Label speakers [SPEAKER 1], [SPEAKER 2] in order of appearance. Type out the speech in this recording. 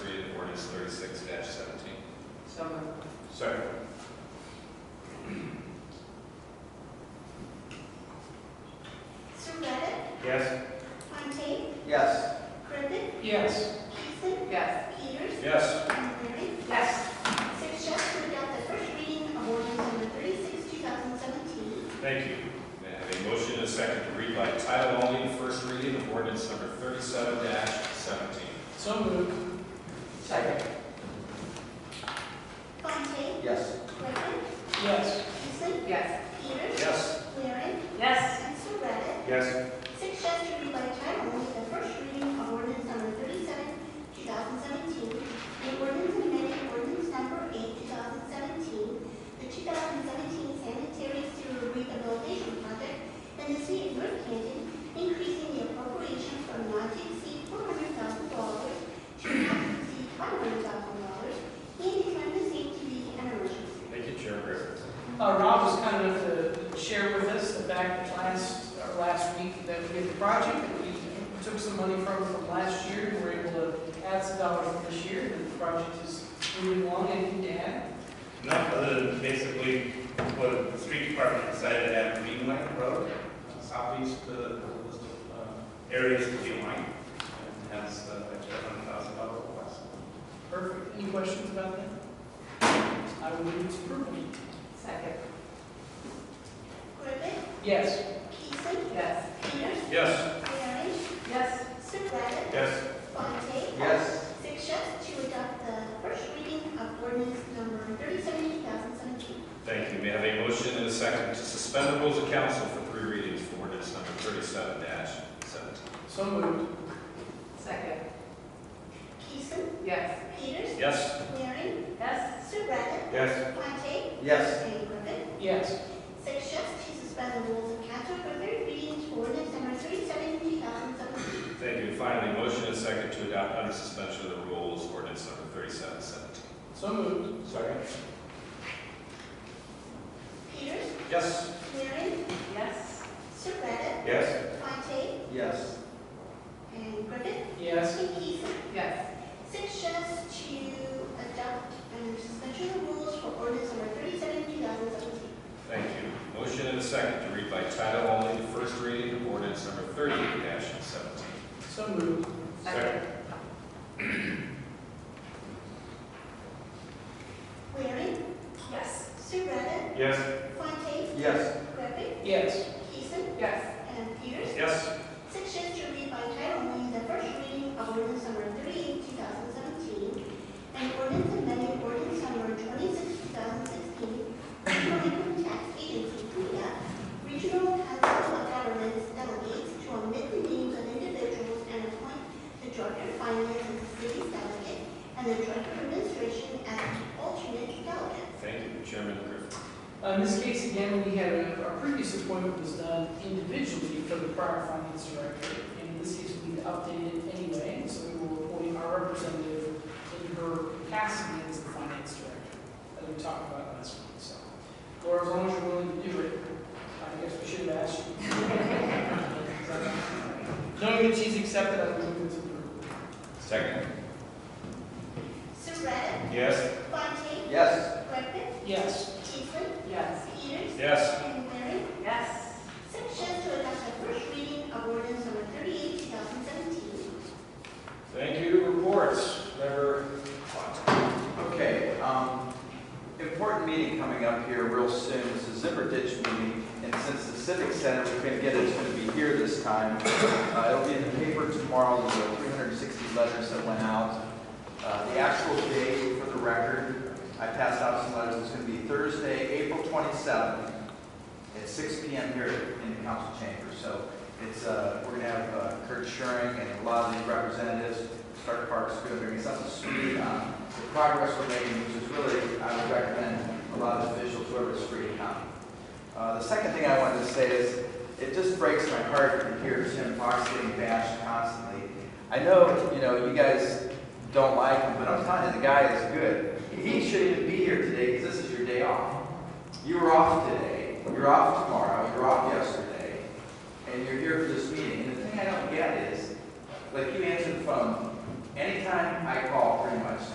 [SPEAKER 1] So moved.
[SPEAKER 2] Second.
[SPEAKER 3] Sir Reddick,
[SPEAKER 2] Yes.
[SPEAKER 3] Fontaine,
[SPEAKER 4] Yes.
[SPEAKER 3] Griffin,
[SPEAKER 1] Yes.
[SPEAKER 3] Peterson,
[SPEAKER 1] Yes.
[SPEAKER 3] Peters,
[SPEAKER 2] Yes.
[SPEAKER 3] Montgomery.
[SPEAKER 1] Yes.
[SPEAKER 3] Six yes to adopt the first reading of ordinance number 36, 2017.
[SPEAKER 2] Thank you. May I have a motion and a second to read by title only, the first reading of ordinance number thirty-seven seventeen?
[SPEAKER 1] So moved. Second.
[SPEAKER 3] Fontaine,
[SPEAKER 4] Yes.
[SPEAKER 3] Griffin,
[SPEAKER 1] Yes.
[SPEAKER 3] Peterson,
[SPEAKER 1] Yes.
[SPEAKER 3] Peters,
[SPEAKER 2] Yes.
[SPEAKER 3] Waring,
[SPEAKER 1] Yes.
[SPEAKER 3] and Sir Reddick.
[SPEAKER 2] Yes.
[SPEAKER 3] Six yes to read by title only the first reading of ordinance number 37, 2017. The ordinance amending ordinance number 8, 2017, the 2017 sanitary sewer rehabilitation project in the city of North Canton, increasing the appropriation from not to exceed $400,000 to not to exceed $500,000, and declaring the same to be an emergency.
[SPEAKER 2] Thank you, Chair Griffin.
[SPEAKER 5] Uh, Rob was kind enough to share with us the fact that last, or last week that we did the project, that we took some money from from last year, and we're able to add some dollars from this year, and the project is moving along, and to add.
[SPEAKER 6] No, other than basically what the street department decided to add Greenway Road, uh, southeast uh, list of uh, areas to be lined, and has uh, a hundred thousand dollar request.
[SPEAKER 5] Perfect. Any questions about that? I will move to approval.
[SPEAKER 1] Second.
[SPEAKER 3] Griffin,
[SPEAKER 5] Yes.
[SPEAKER 3] Peterson,
[SPEAKER 1] Yes.
[SPEAKER 3] Peters,
[SPEAKER 2] Yes.
[SPEAKER 3] Waring,
[SPEAKER 1] Yes.
[SPEAKER 3] Surratt,
[SPEAKER 2] Yes.
[SPEAKER 3] Fontaine,
[SPEAKER 4] Yes.
[SPEAKER 3] Six yes to adopt the first reading of ordinance number 37, 2017.
[SPEAKER 2] Thank you. May I have a motion and a second to suspend the rules of council for three readings for ordinance number thirty-seven seventeen?
[SPEAKER 5] So moved.
[SPEAKER 1] Second.
[SPEAKER 3] Peterson,
[SPEAKER 1] Yes.
[SPEAKER 3] Peters,
[SPEAKER 2] Yes.
[SPEAKER 3] Waring,
[SPEAKER 1] Yes.
[SPEAKER 3] Surratt,
[SPEAKER 2] Yes.
[SPEAKER 3] Fontaine,
[SPEAKER 4] Yes.
[SPEAKER 3] and Griffin.
[SPEAKER 5] Yes.
[SPEAKER 3] Six yes to suspend the rules of council for third reading to ordinance number 37, 2017.
[SPEAKER 2] Thank you. Finally, motion and a second to adopt under suspension of the rules ordinance number thirty-seven seventeen?
[SPEAKER 5] So moved.
[SPEAKER 2] Second.
[SPEAKER 3] Peters,
[SPEAKER 2] Yes.
[SPEAKER 3] Waring,
[SPEAKER 1] Yes.
[SPEAKER 3] Surratt,
[SPEAKER 2] Yes.
[SPEAKER 3] Fontaine,
[SPEAKER 4] Yes.
[SPEAKER 3] and Griffin.
[SPEAKER 5] Yes.
[SPEAKER 3] And Peterson.
[SPEAKER 1] Yes.
[SPEAKER 3] Six yes to adopt and suspension of rules for ordinance number 37, 2017.
[SPEAKER 2] Thank you. Motion and a second to read by title only the first reading of ordinance number thirty-eight seventeen.
[SPEAKER 5] So moved.
[SPEAKER 2] Second.
[SPEAKER 3] Waring,
[SPEAKER 1] Yes.
[SPEAKER 3] Surratt,
[SPEAKER 2] Yes.
[SPEAKER 3] Fontaine,
[SPEAKER 4] Yes.
[SPEAKER 3] Griffin,
[SPEAKER 5] Yes.
[SPEAKER 3] Peterson,
[SPEAKER 1] Yes.
[SPEAKER 3] and Peters.
[SPEAKER 2] Yes.
[SPEAKER 3] Six yes to read by title only the first reading of ordinance number 38, 2017, and ordinance amending ordinance number 26, 2016, Department Tax Agency, CUDA, Regional Council of Governments delegates to omit the names of individuals and appoint the Director of Finance as the city's delegate and the Director of Administration as alternate delegate.
[SPEAKER 2] Thank you, Chairman Griffin.
[SPEAKER 5] Uh, In this case, again, we had, a- our previous appointment was done individually for the prior finance director, and in this case, we updated it anyway, so we will appoint our representative in her capacity as the finance director, as we talked about last week, so. Laura, as long as you're willing to do it, I guess we should have asked you. Knowing that she's accepted, I would move it to her.
[SPEAKER 2] Second.
[SPEAKER 3] Surratt,
[SPEAKER 2] Yes.
[SPEAKER 3] Fontaine,
[SPEAKER 4] Yes.
[SPEAKER 3] Griffin,
[SPEAKER 5] Yes.
[SPEAKER 3] Peterson,
[SPEAKER 1] Yes.
[SPEAKER 3] Peters,
[SPEAKER 2] Yes.
[SPEAKER 3] and Waring.
[SPEAKER 1] Yes.
[SPEAKER 3] Six yes to adopt the first reading of ordinance number 38, 2017.
[SPEAKER 2] Thank you. Reports, member Fontaine.
[SPEAKER 4] Okay, um, important meeting coming up here real soon. It's the Zimmer Ditch meeting, and since the Civic Center, we couldn't get it, it's gonna be here this time. Uh, it'll be in the paper tomorrow, there's uh, 360 letters that went out. Uh, the actual date for the record, I passed out some letters, it's gonna be Thursday, April 27th, at 6 PM here in the council chamber. So it's, uh, we're gonna have uh, Kurt Schering and a lot of these representatives, Stark Park School, bringing us up to speed on the progress we're making, which is really, I would recommend a lot of officials, whoever's free to come. Uh, The second thing I wanted to say is, it just breaks my heart to hear Tim Fox getting bashed constantly. I know, you know, you guys don't like him, but I'm telling you, the guy is good. He shouldn't even be here today, because this is your day off. You were off today, you're off tomorrow, you're off yesterday, and you're here for this meeting. And the thing I don't get is, like you answered the phone, anytime I call for an